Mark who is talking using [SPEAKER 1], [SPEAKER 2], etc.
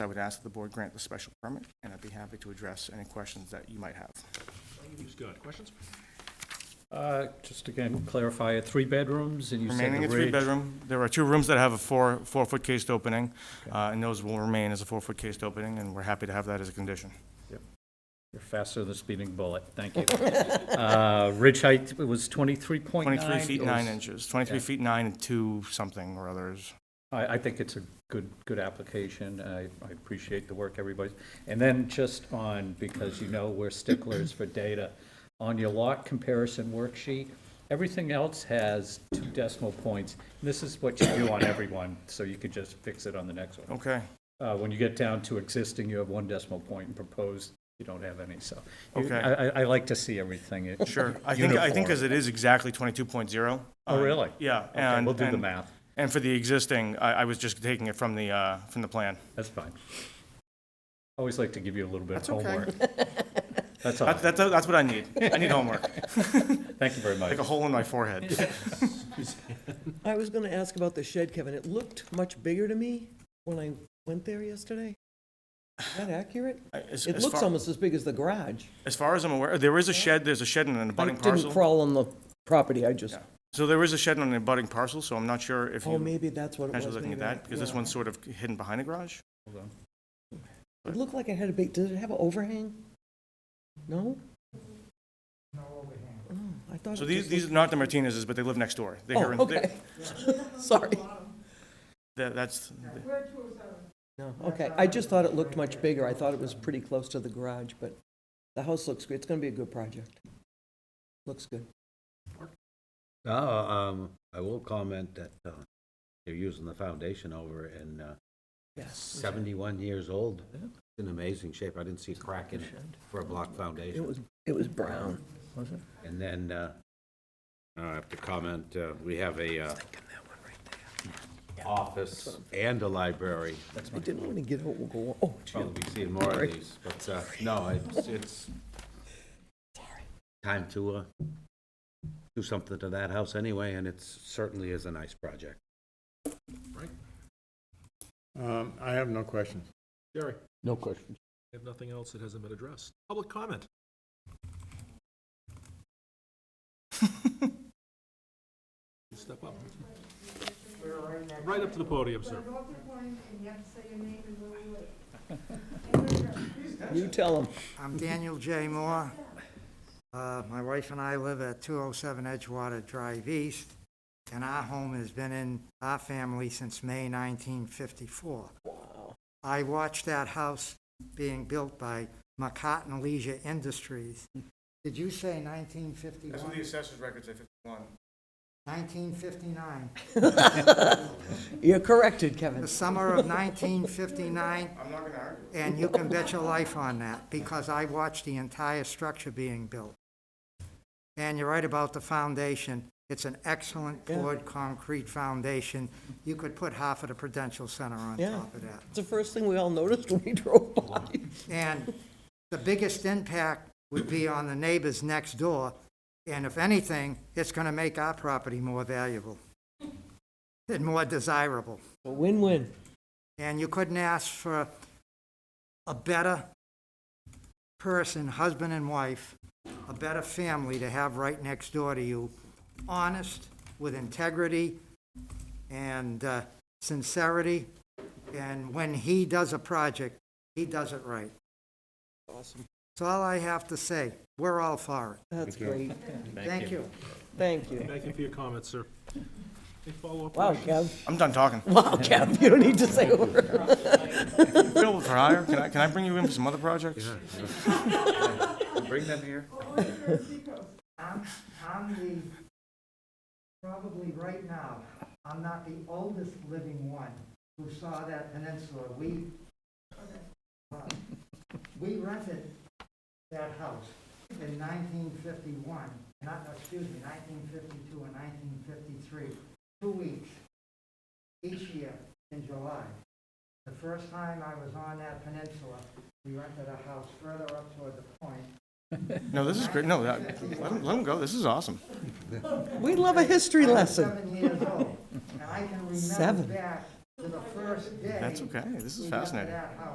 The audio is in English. [SPEAKER 1] I would ask that the board grant the special permit, and I'd be happy to address any questions that you might have.
[SPEAKER 2] Scott, questions?
[SPEAKER 3] Uh, Just again, clarify, uh, three bedrooms, and you said
[SPEAKER 1] Remaining
[SPEAKER 3] the
[SPEAKER 1] a
[SPEAKER 3] ridge.
[SPEAKER 1] three-bedroom, there are two rooms that have a four, four-foot cased opening, uh, and those will remain as a four-foot cased opening, and we're happy to have that as a condition.
[SPEAKER 3] You're faster than a speeding bullet, thank you. Uh, Ridge height was 23.9?
[SPEAKER 1] Twenty-three feet
[SPEAKER 3] It
[SPEAKER 1] nine
[SPEAKER 3] was-
[SPEAKER 1] inches, twenty-three
[SPEAKER 3] yeah.
[SPEAKER 1] feet nine and two something or others.
[SPEAKER 3] I, I think it's a good, good application. I, I appreciate the work everybody's. And then just on, because you know we're sticklers for data, on your lot comparison worksheet, everything else has two decimal points. This is what you do on everyone, so you could just fix it on the next one.
[SPEAKER 1] Okay,
[SPEAKER 3] Uh, when you get down to existing, you have one decimal point, and proposed, you don't have any, so. you-
[SPEAKER 1] Okay.
[SPEAKER 3] I, I- I like to see everything. uh,
[SPEAKER 1] sure. I think, I think
[SPEAKER 3] uniform.
[SPEAKER 1] as it is exactly twenty-two point zero. Uh,
[SPEAKER 3] Oh, really?
[SPEAKER 1] Yeah.
[SPEAKER 3] Okay,
[SPEAKER 1] and-
[SPEAKER 3] we'll do the
[SPEAKER 1] and-
[SPEAKER 3] math.
[SPEAKER 1] And for the existing, I, I was just taking it from the, uh, from the plan.
[SPEAKER 3] That's fine. Always like to give you a little bit of
[SPEAKER 1] That's okay.
[SPEAKER 3] homework. That's all.
[SPEAKER 1] That's, that's, that's what I need. I need homework,
[SPEAKER 3] Thank you very much.
[SPEAKER 1] like a hole in my forehead.
[SPEAKER 4] I was gonna ask about the shed, Kevin. It looked much bigger to me when I went there yesterday. Is that accurate?
[SPEAKER 1] As-
[SPEAKER 4] It
[SPEAKER 1] as
[SPEAKER 4] looks
[SPEAKER 1] far-
[SPEAKER 4] almost as big as the garage.
[SPEAKER 1] As far as I'm aware, there is a shed, there's a shed in an
[SPEAKER 4] I
[SPEAKER 1] abutting
[SPEAKER 4] didn't
[SPEAKER 1] parcel.
[SPEAKER 4] crawl on the property, I just,
[SPEAKER 1] So there is a shed on an abutting parcel, so I'm not sure if
[SPEAKER 4] oh,
[SPEAKER 1] you
[SPEAKER 4] maybe that's what it was.
[SPEAKER 1] potentially looking at
[SPEAKER 4] maybe I-
[SPEAKER 1] that, because this
[SPEAKER 4] yeah.
[SPEAKER 1] one's sort of hidden behind a garage.
[SPEAKER 4] It looked like it had a big, did it have an overhang? No? No overhang. I thought.
[SPEAKER 1] So
[SPEAKER 4] it
[SPEAKER 1] these,
[SPEAKER 4] just
[SPEAKER 1] these are not the Martinez's, but they live next door. They're here
[SPEAKER 4] looked-
[SPEAKER 1] in-
[SPEAKER 4] Oh, okay. Sorry.
[SPEAKER 1] they- that- That's,
[SPEAKER 4] No, okay. I just thought it looked much bigger. I thought it was pretty close to the garage, but the house looks good. It's gonna be a good project. Looks good.
[SPEAKER 5] No, um, I will comment that, uh, they're using the foundation over it and, uh,
[SPEAKER 4] Yes.
[SPEAKER 5] seventy-one years old. It's in amazing shape. I didn't see a crack in it for a block
[SPEAKER 4] It
[SPEAKER 5] foundation.
[SPEAKER 4] was, it was brown.
[SPEAKER 5] And then, uh, I have to comment, uh, we have a, uh, office and a library.
[SPEAKER 4] I didn't want to get out and go, oh, gee,
[SPEAKER 5] Probably be seeing more of these, but, uh, no, it's, it's time to, uh, do something to that house anyway, and it's certainly is a nice project.
[SPEAKER 6] Um, I have no questions.
[SPEAKER 2] Jerry,
[SPEAKER 7] No questions.
[SPEAKER 2] I have nothing else that hasn't been addressed. Public comment? Step up. Right up to the podium, sir.
[SPEAKER 4] you tell them.
[SPEAKER 8] I'm Daniel J. Moore. Uh, My wife and I live at 207 Edgewater Drive East, and our home has been in our family since May 1954. I watched that house being built by McCartan Leisure Industries. Did you say 1951?
[SPEAKER 1] assessor's records at fifty-one.
[SPEAKER 8] 1959.
[SPEAKER 4] You're corrected, Kevin.
[SPEAKER 8] The summer of
[SPEAKER 1] I'm
[SPEAKER 8] 1959,
[SPEAKER 1] not gonna argue.
[SPEAKER 8] And you can bet your life on that, because I watched the entire structure being built. And you're right about the foundation. It's an excellent poured concrete foundation. You could put half of the Prudential Center on
[SPEAKER 4] Yeah.
[SPEAKER 8] top of that.
[SPEAKER 4] It's the first thing we all noticed when we drove by.
[SPEAKER 8] And the biggest impact would be on the neighbors next door. And if anything, it's going to make our property more valuable and more desirable.
[SPEAKER 4] A Win-win.
[SPEAKER 8] And you couldn't ask for a better person, husband and wife, a better family to have right next door to you, honest, with integrity and uh, sincerity. And when he does a project, he does it right.
[SPEAKER 4] Awesome.
[SPEAKER 8] That's all I have to say. We're all for
[SPEAKER 4] That's great.
[SPEAKER 8] it. Thank you.
[SPEAKER 4] Thank you.
[SPEAKER 2] Thank you for your comments, sir. Any follow-up
[SPEAKER 4] Wow,
[SPEAKER 2] questions?
[SPEAKER 4] Kev.
[SPEAKER 1] I'm done talking.
[SPEAKER 4] Wow, Kev, you don't need to say a word.
[SPEAKER 1] Bill for hire, can I, can I bring you in for some other projects?
[SPEAKER 5] Bring them here.
[SPEAKER 8] I'm, I'm the, probably right now, I'm not the oldest living one who saw that peninsula. We, uh, we rented that house in 1951, not, excuse me, 1952 and 1953, two weeks each year in July. The first time I was on that peninsula, we rented a house further up toward the point,
[SPEAKER 1] No, this is great, no, that- let him, let him go, this is awesome.
[SPEAKER 4] We love a history
[SPEAKER 8] I was
[SPEAKER 4] lesson.
[SPEAKER 8] Seven years old, and I can remember
[SPEAKER 4] Seven.
[SPEAKER 8] back to the first day.
[SPEAKER 1] That's okay, this
[SPEAKER 8] we
[SPEAKER 1] is
[SPEAKER 8] got to
[SPEAKER 1] fascinating.
[SPEAKER 8] that house.